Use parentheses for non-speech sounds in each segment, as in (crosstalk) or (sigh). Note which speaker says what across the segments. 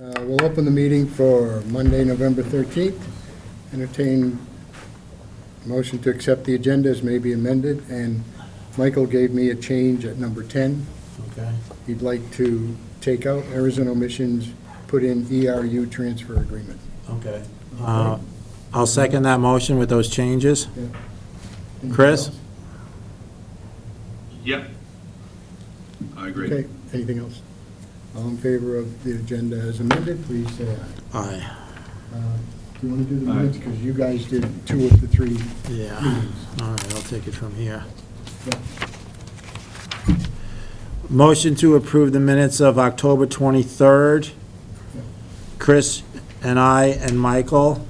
Speaker 1: Uh, We'll open the meeting for Monday, November 13th. Entertain motion to accept the agenda as may be amended, and Michael gave me a change at number 10.
Speaker 2: Okay,
Speaker 1: He'd like to take out Arizona Missions, put in ERU transfer agreement.
Speaker 2: okay. Uh, I'll second that motion with those changes.
Speaker 1: Anything
Speaker 2: Chris?
Speaker 1: else?
Speaker 3: Yep. I agree.
Speaker 1: Okay, anything else? All in favor of the agenda as amended, please say aye.
Speaker 2: Aye,
Speaker 1: Uh, Do you want to do the
Speaker 3: Aye.
Speaker 1: minutes? Because you guys did two of the three
Speaker 2: yeah.
Speaker 1: meetings.
Speaker 2: All right, I'll take it from here.
Speaker 1: Yeah.
Speaker 2: Motion to approve the minutes of October 23rd. Chris and I and Michael.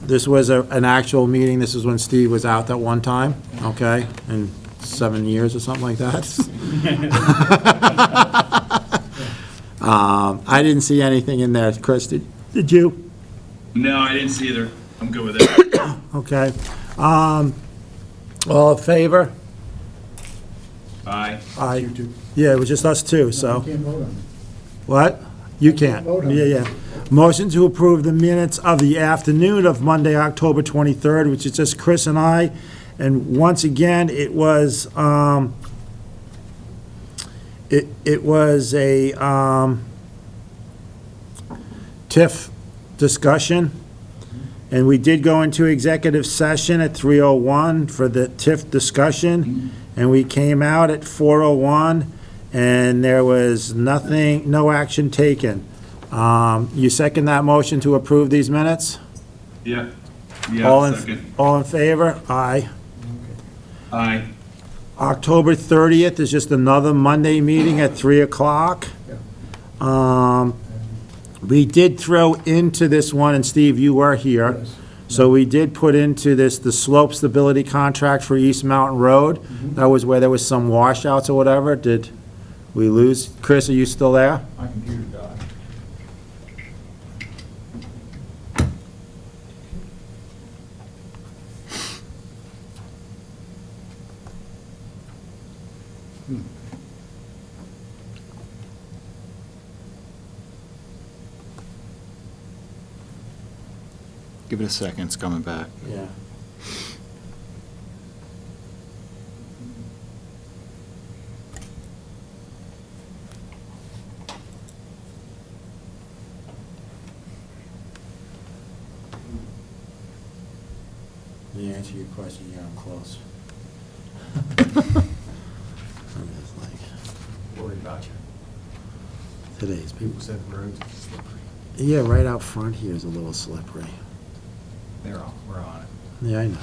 Speaker 2: This was a- an actual meeting, this is when Steve was out that one time, okay? In seven years or something like that. (laughs) Um, I didn't see anything in there, Chris, did did you?
Speaker 3: No, I didn't see either. I'm good with it. (coughs)
Speaker 2: Okay. Um, All in favor?
Speaker 3: Aye.
Speaker 2: Aye.
Speaker 1: You two.
Speaker 2: Yeah, it was just us two,
Speaker 1: You
Speaker 2: so.
Speaker 1: can't vote on it.
Speaker 2: What? You can't.
Speaker 1: vote on
Speaker 2: Yeah,
Speaker 1: it.
Speaker 2: yeah. Motion to approve the minutes of the afternoon of Monday, October 23rd, which is just Chris and I. And once again, it was, um, it, it was a, um, TIF discussion. And we did go into executive session at 3:01 for the TIF discussion, and we came out at 4:01, and there was nothing, no action taken. Um, You second that motion to approve these minutes?
Speaker 3: Yeah.
Speaker 2: All
Speaker 3: Yeah,
Speaker 2: in-
Speaker 3: second.
Speaker 2: All in favor? Aye.
Speaker 3: Aye.
Speaker 2: October 30th is just another Monday meeting at 3 o'clock. Um, We did throw into this one, and Steve, you were here.
Speaker 1: Yes.
Speaker 2: So we did put into this the slope stability contract for East Mountain Road. That was where there was some washouts or whatever. Did we lose? Chris, are you still there?
Speaker 4: My computer died. Give it a second, it's coming back.
Speaker 2: Yeah. The answer to your question, yeah, I'm
Speaker 4: (laughs)
Speaker 2: close. I'm just like,
Speaker 4: Worried about you.
Speaker 2: Today's people.
Speaker 4: said roads are slippery.
Speaker 2: Yeah, right out front here is a little slippery.
Speaker 4: They're on, we're on it.
Speaker 2: Yeah, I know.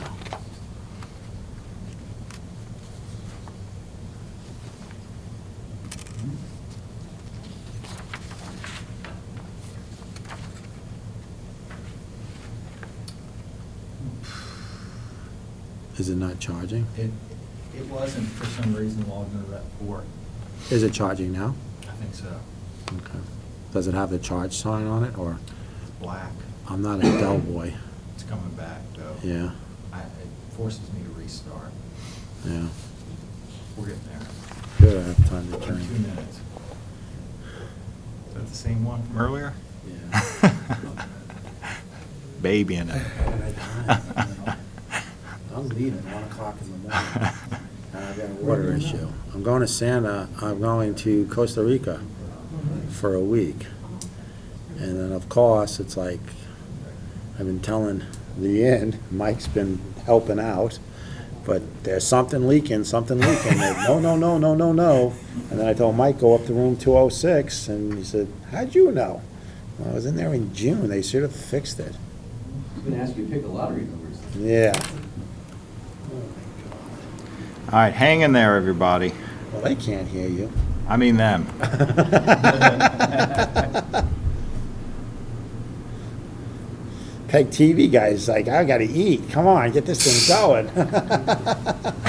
Speaker 2: Is it not charging?
Speaker 4: It, it wasn't for some reason logged into that port.
Speaker 2: Is it charging now?
Speaker 4: I think so.
Speaker 2: Okay. Does it have the charge sign on it, or?
Speaker 4: It's black.
Speaker 2: I'm not a Dell boy.
Speaker 4: It's coming back though.
Speaker 2: Yeah,
Speaker 4: I, it forces me to restart.
Speaker 2: yeah.
Speaker 4: We're getting there.
Speaker 2: Good, I have time to
Speaker 4: Two
Speaker 2: turn.
Speaker 4: minutes. Is that the same one from earlier?
Speaker 2: Yeah.
Speaker 4: (laughs) Baby in
Speaker 2: (laughs)
Speaker 4: it.
Speaker 2: I'm leaving at one o'clock in the morning. And I've got a water issue. I'm going to Santa, I'm going to Costa Rica for a week. And then, of course, it's like, I've been telling the end, Mike's been helping out, but there's something leaking, something leaking. They're, No, no, no, no, no, no. And then I told Mike, go up to room two oh six, and he said, how'd you know? Well, I was in there in June, they should have fixed it.
Speaker 5: I'm gonna ask you to pick a lottery numbers.
Speaker 2: Yeah.
Speaker 4: All right, hang in there, everybody.
Speaker 2: Well, they can't hear you.
Speaker 4: I mean them.
Speaker 2: (laughs) Peg TV guy's like, I gotta eat. Come on, get this thing going. (laughs)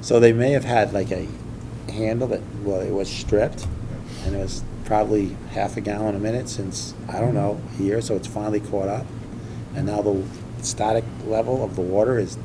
Speaker 2: so they may have had like a handle that, well, it was stripped, and it was probably half a gallon a minute since I don't know a year, so it's finally caught up, and now the static level of the water is